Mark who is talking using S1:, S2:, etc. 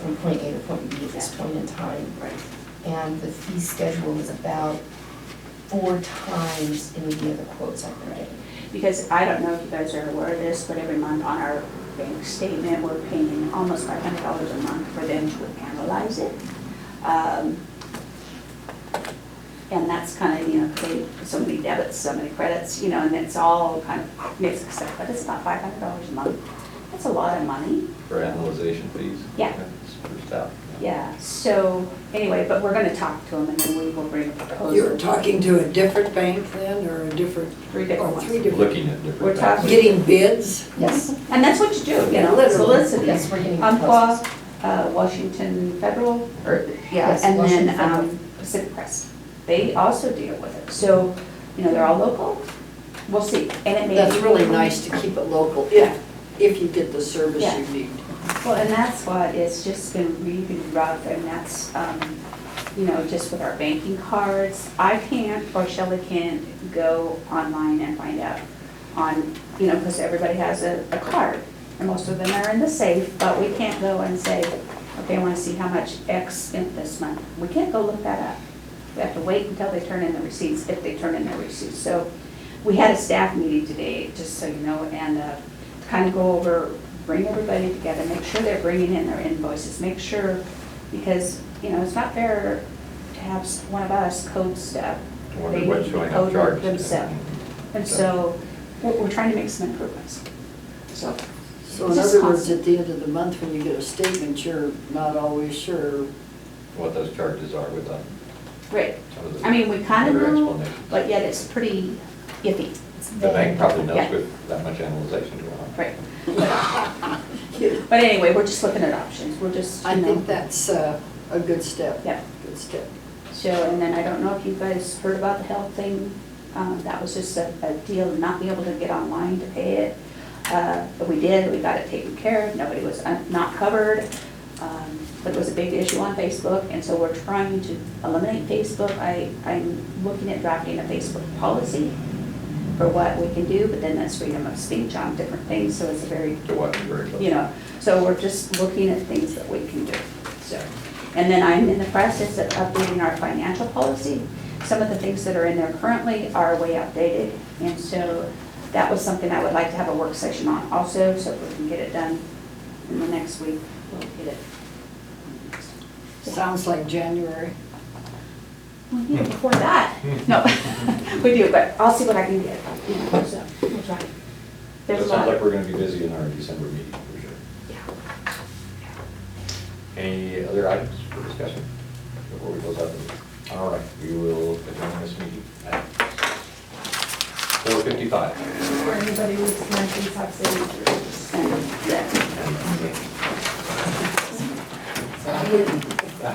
S1: point A to point B at this point in time.
S2: Right.
S1: And the fee schedule is about four times any of the other quotes I've been getting.
S2: Because I don't know if you guys are aware of this, but every month on our bank statement, we're paying almost five hundred dollars a month for them to analyze it. Um, And that's kind of, you know, they, so many debits, so many credits, you know, and it's all kind of mixed up, but it's about five hundred dollars a month. That's a lot of money.
S3: For analyzation fees?
S2: Yeah.
S3: That's pretty stout.
S2: Yeah, so anyway, but we're gonna talk to them and then we will bring a proposal.
S4: You're talking to a different bank then, or a different,
S2: Three different
S4: or
S2: ones.
S4: three different,
S3: Looking at
S2: We're talking-
S3: different. factors.
S4: getting bids?
S1: Yes,
S2: And that's what you do, you know,
S4: Literally.
S2: solicit.
S1: yes, we're getting
S2: Umpqua,
S1: proposals.
S2: uh, Washington Federal, or, yeah,
S1: Yes,
S2: and
S1: Washington
S2: then
S1: Federal.
S2: um, Pacific Crest. They also deal with it. So, you know, they're all local. We'll see. And it may be.
S4: That's really nice to keep it local,
S2: Yeah.
S4: if, if you get the service
S2: Yeah.
S4: you need.
S2: Well, and that's why it's just been really rough, and that's, um, you know, just with our banking cards. I can't, or Shelley can't, go online and find out on, you know, because everybody has a, a card, and most of them are in the safe, but we can't go and say, okay, I want to see how much X spent this month. We can't go look that up. We have to wait until they turn in the receipts, if they turn in their receipts. So we had a staff meeting today, just so you know, and uh, to kind of go over, bring everybody together, make sure they're bringing in their invoices, make sure, because, you know, it's not fair to have s- one of us code stuff.
S3: Wonder
S2: They
S3: what's
S2: need to
S3: showing
S2: code
S3: up
S2: it
S3: charged.
S2: Themselves. And so we're, we're trying to make some improvements, so.
S4: So
S2: it's
S4: in
S2: just
S4: other words,
S2: constant.
S4: at the end of the month, when you get a statement, you're not always sure.
S3: What those charges are with them.
S2: Right.
S3: some of the
S2: I mean, we kind of
S3: better
S2: know,
S3: explanations.
S2: but yet it's pretty iffy.
S3: The bank probably knows
S2: Yeah.
S3: with that much analyzation going on.
S2: Right. But anyway, we're just looking at options, we're just, you
S4: I
S2: know.
S4: think that's uh, a good step.
S2: Yeah.
S4: Good step.
S2: So, and then I don't know if you guys heard about the health thing, um, that was just a, a deal, of not being able to get online to pay it. Uh, but we did, we got it taken care of, nobody was un- not covered, um, but it was a big issue on Facebook, and so we're trying to eliminate Facebook. I, I'm looking at drafting a Facebook policy for what we can do, but then that's freedom of speech on different things, so it's a very
S3: To watch it very closely.
S2: you know, so we're just looking at things that we can do, so. And then I'm in the process of updating our financial policy. Some of the things that are in there currently are way outdated, and so that was something I would like to have a work session on also, so if we can get it done in the next week, we'll get it.
S4: Sounds like January.
S2: Well, yeah, before that, no, we do, but I'll see what I can get, you know, so, we'll try.
S3: So It
S2: There's a
S3: sounds
S2: lot,
S3: like we're gonna be busy in our December meeting for sure.
S2: yeah.
S3: Any other items for discussion before we close out the meeting? All right, we will adjourn this meeting at four fifty-five.
S5: Or anybody who's not in top city.
S2: And, yeah.
S1: So I wouldn't